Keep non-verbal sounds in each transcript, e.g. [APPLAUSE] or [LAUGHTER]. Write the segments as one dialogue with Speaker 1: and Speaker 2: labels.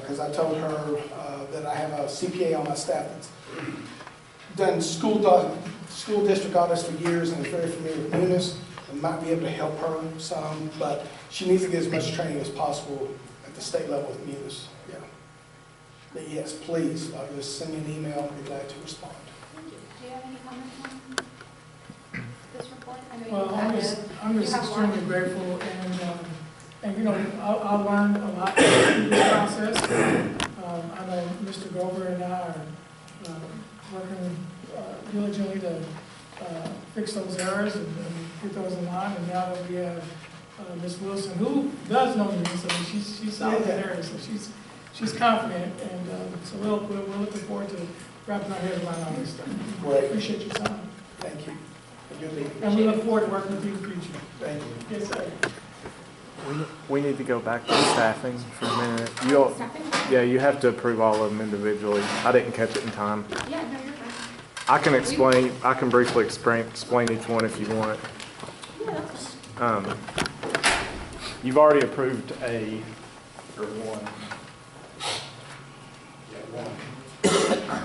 Speaker 1: because Uh, I told her uh, that I have a CPA on my staff that's done school, doc- school district audits for years and is very familiar with Munis, and might be able to help her some, but she needs to get as much training as possible at the state level with Munis, yeah. But yes, please, uh, just send me an email, I'll be glad to respond.
Speaker 2: Thank you. Do you have any comments on this report? I know you-
Speaker 3: Well,
Speaker 2: I
Speaker 3: I'm
Speaker 2: know-
Speaker 3: just, I'm just
Speaker 2: You have one.
Speaker 3: extremely grateful and, um, and you know, I, I learned a lot through this process. Um, I know Mr. Gober and I are, um, working uh, diligently to, uh, fix those errors and, and get those in line. And now that we have, uh, Ms. Wilson, who does know me, so she's, she's solid in her, so she's, she's confident. And, um, so we'll, we're, we're looking forward to wrapping our heads around all this stuff.
Speaker 1: Great,
Speaker 3: Appreciate your time.
Speaker 1: thank you. Have a good evening.
Speaker 3: And we look forward to working with you in the future.
Speaker 1: Thank you.
Speaker 3: Yes, sir.
Speaker 4: We- We need to go back to staffing for a minute. You all,
Speaker 2: Nothing?
Speaker 4: yeah, you have to approve all of them individually. I didn't catch it in time.
Speaker 2: Yeah, no, you're fine.
Speaker 4: I can explain, I can briefly explain, explain each one if you want.
Speaker 2: Yeah, that's fine.
Speaker 4: Um, You've already approved a, or one. Yeah, one.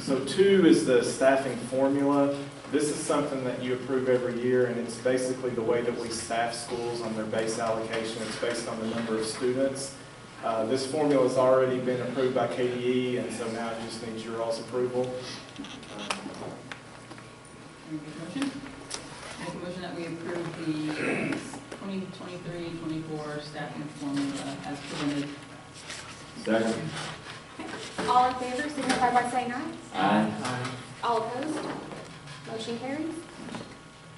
Speaker 4: So two is the staffing formula. This is something that you approve every year, and it's basically the way that we staff schools on their base allocation. It's based on the number of students. Uh, This formula's already been approved by KDE, and so now it just needs your all's approval. Um,
Speaker 5: Make a motion. Make a motion that we approve the 2023-24 staffing formula as presented.
Speaker 6: Second.
Speaker 2: All in favor, signify by saying aye.
Speaker 6: Aye.
Speaker 2: All opposed? Motion carries.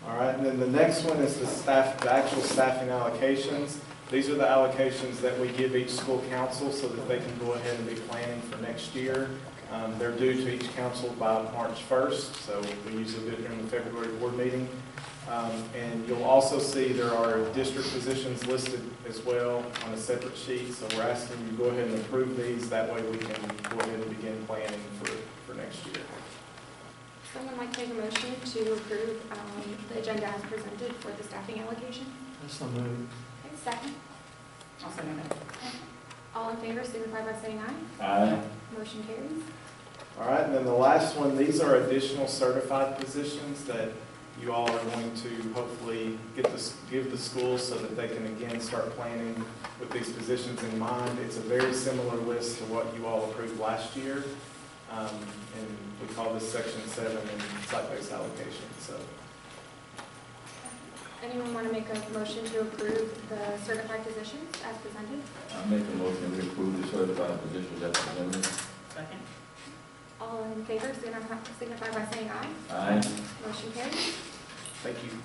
Speaker 4: All right, and then the next one is the staff, the actual staffing allocations. These are the allocations that we give each school council so that they can go ahead and be planning for next year. Um, They're due to each council by March 1st, so we usually do it during the February board meeting. Um, And you'll also see there are district positions listed as well on a separate sheet, so we're asking you to go ahead and approve these. That way we can go ahead and begin planning for, for next year.
Speaker 2: Someone like to make a motion to approve um, the agenda as presented for the staffing allocation? Okay, second.
Speaker 5: I'll second that.
Speaker 2: All in favor, signify by saying aye.
Speaker 6: Aye.
Speaker 2: Motion carries.
Speaker 4: All right, and then the last one, these are additional certified positions that you all are going to hopefully get the, give the schools so that they can again start planning with these positions in mind. It's a very similar list to what you all approved last year. Um, and we call this section seven in site-based allocation, so.
Speaker 2: Anyone want to make a motion to approve the certified positions as presented?
Speaker 6: I make a motion we approve the certified positions as presented.
Speaker 5: Second.
Speaker 2: All in favor, signify signify by saying aye.
Speaker 6: Aye.
Speaker 2: Motion carries.
Speaker 4: Thank you.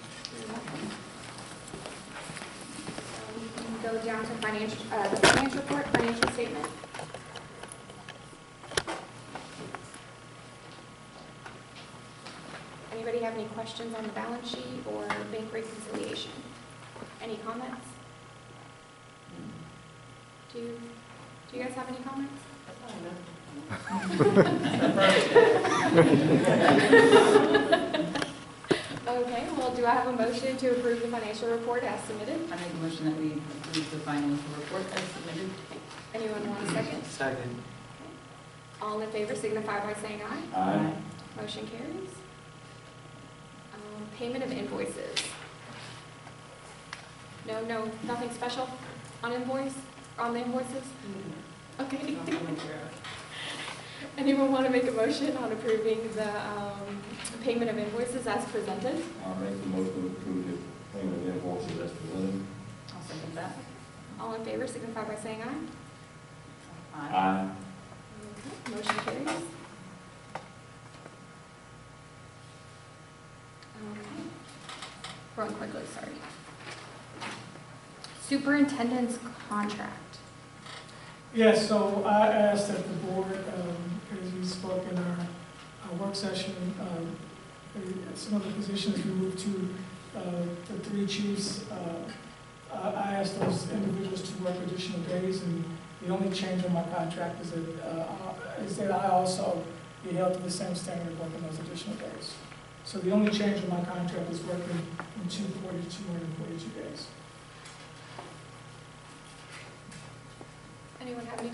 Speaker 2: We can go down to financial, uh, the financial report, financial statement. Anybody have any questions on the balance sheet or bank reconciliation? Any comments? Do you, do you guys have any comments? Okay, well, do I have a motion to approve the financial report as submitted?
Speaker 5: I make a motion that we approve the financial report as submitted.
Speaker 2: Anyone want a second? Second. All in favor signify by saying aye.
Speaker 6: Aye.
Speaker 2: Motion carries. Um, Payment of invoices. No, no, nothing special on invoice, on the invoices? Okay. [LAUGHS] Anyone want to make a motion on approving the um, payment of invoices as presented?
Speaker 6: I make the motion we approve the payment of invoices as presented.
Speaker 5: I'll second that.
Speaker 2: All in favor signify by saying aye.
Speaker 5: Aye.
Speaker 6: Aye.
Speaker 2: Okay, Mm-hmm. Motion carries. Okay. Going quickly, sorry. Superintendent's contract.
Speaker 3: Yes, so I asked that the board, um, as we spoke in our, our work session, um, uh, some of the positions we moved to, uh, the three chiefs, uh, I, I asked those individuals to work additional days, and the only change on my contract is that, uh, I- is that I also be held to the same standard of working those additional days. So the only change on my contract is working in two forty, two hundred and forty-two days.
Speaker 2: Anyone have any